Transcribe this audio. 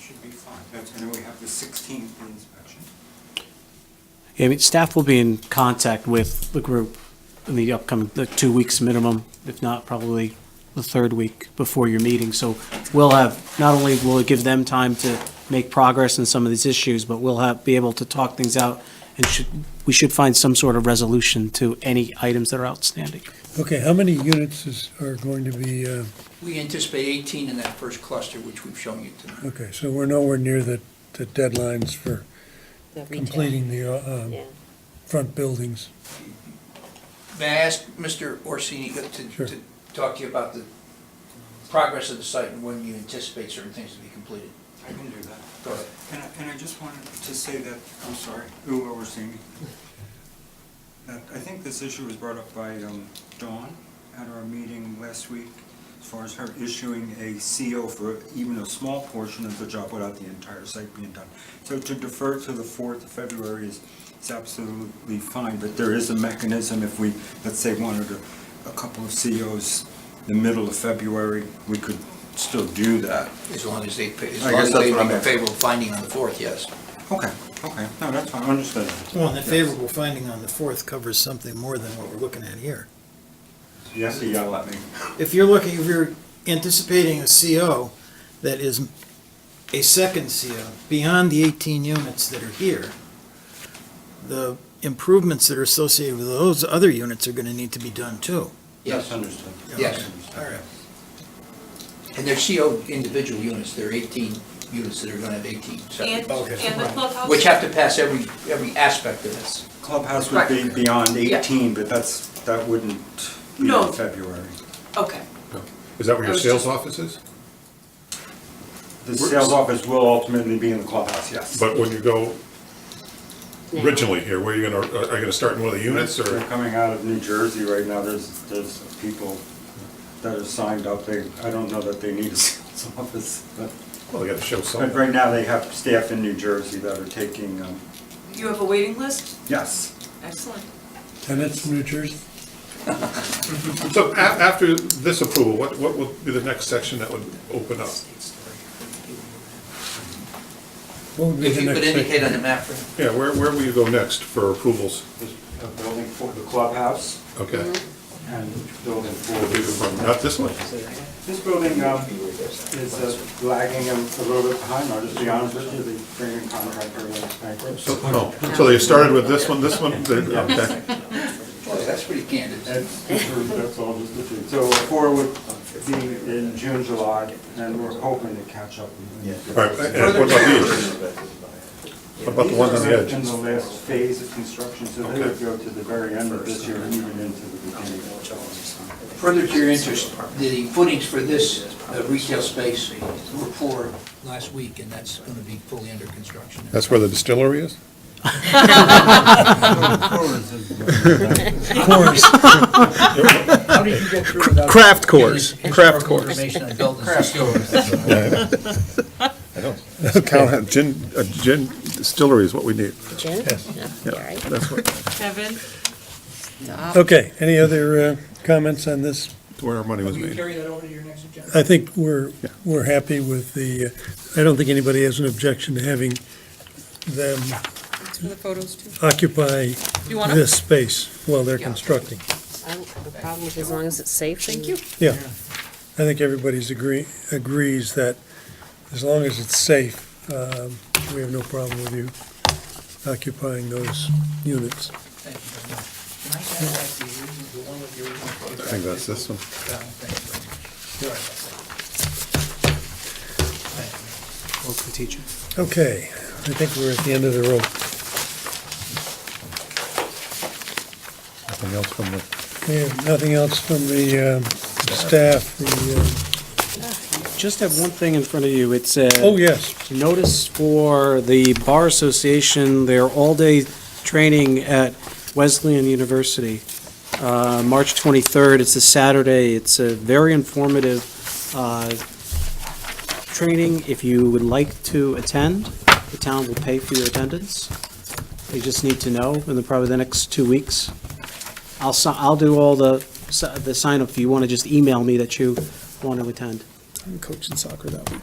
should be fine. That's, and then we have the 16th inspection. Yeah, I mean, staff will be in contact with the group in the upcoming, the two weeks minimum, if not probably the third week before your meeting. So we'll have, not only will it give them time to make progress in some of these issues, but we'll have, be able to talk things out and should, we should find some sort of resolution to any items that are outstanding. Okay, how many units is, are going to be, uh, We anticipate 18 in that first cluster, which we've shown you tonight. okay, so we're nowhere near the, the deadlines for the retail. completing the, uh, um, Yeah. front buildings. May I ask Mr. Orsini to- to Sure. to talk to you about the progress of the site and when you anticipate certain things to be completed? I can do that. Go ahead. And I, and I just wanted to say that, I'm sorry, who overseeing me? That I think this issue was brought up by um, Dawn at our meeting last week, as far as her issuing a CO for even a small portion of the job without the entire site being done. So to defer to the 4th of February is, is absolutely fine, but there is a mechanism if we, let's say, wanted a, a couple of COs the middle of February, we could still do that. As long as they, as I long guess that's as they what I'm make a asking. favorable finding on the 4th, yes. Okay, okay, no, that's fine, understood. Well, and the favorable finding on the fourth covers something more than what we're looking at here. You have to yell at me. If you're looking, if you're anticipating a CO that is a second CO beyond the 18 units that are here, the improvements that are associated with those other units are going to need to be done too. Yes. understood. Yes. All right. And they're CO individual units, there are 18 units that are going to have 18 separate, And, and the clubhouse. which have to pass every, every aspect of this. Clubhouse would be beyond Yeah. 18, but that's, that wouldn't be No. in February. Okay, Is that where I your was sales just- office is? The sales office will ultimately be in the clubhouse, yes. But when you go Yeah. originally here, where are you gonna, are you gonna start in one of the units They're or? coming out of New Jersey right now, there's, there's people that are signed up, they, I don't know that they need a sales office, but, Well, they gotta show but something. right now they have staff in New Jersey that are taking, um, you have a waiting list? yes. Excellent. Tenants from New Jersey? So a- after this approval, what, what would be the next section that would open up? What would be If the you could next indicate on the thing? map for him. Yeah, where, where will you go next for approvals? There's a uh, building for the clubhouse Mm-hmm. Okay. and building Will be the front- for. Not this one. This building, um, is uh, lagging a a little bit behind, I'll just be honest with you, the Korean contractor was bankrupt. So, oh, so they started with this one, this one, they- okay. Boy, that's pretty candid. That's, that's all just the truth. So four would be in June, July, and we're hoping to catch up. All right, and what about these? What about the ones on the These are In the edge? last phase of construction, so they would Okay. go to the very end of this year and even into the beginning of July. Further to your interest, the footings for this uh, retail space were poor last week, and that's going to be fully under construction. That's where the distillery is? Course, How did you get through without? Craft cores, giving us craft historical cores. Information on buildings and stores? I know. Cal- Gin, a gin distillery is what we need. Jen? Yeah, all right. That's what, Kevin? okay, any other, uh, comments on this? where our money was made. that over to your next agenda? I think we're, Yeah. we're happy with the, uh, I don't think anybody has an objection to having them Thanks for the photos too. occupy You want them? this space while they're Yeah. constructing. I don't have a problem with as long as it's safe. Thank you. Yeah, I think everybody's agree, agrees that as long as it's safe, um, we have no problem with you occupying those units. Thank you very much. Can I have back the original, the one with the original photograph? I think that's this one. Yeah, thank you very much. You're right. Thank you. Welcome, teacher. Okay, I think we're at the end of the rope. Nothing else from the. We have nothing else from the um, staff, the, Just have one thing in front of you. It's, uh, uh, oh, yes. notice for the Bar Association, their all-day training at Wesleyan University, uh, March 23rd, it's a Saturday, it's a very informative uh, training. If you would like to attend, the town will pay for your attendance. You just need to know in the, probably the next two weeks. I'll, si- I'll do all the, si- the sign-up, if you want to just email me that you want to attend. I'm coaching soccer that week.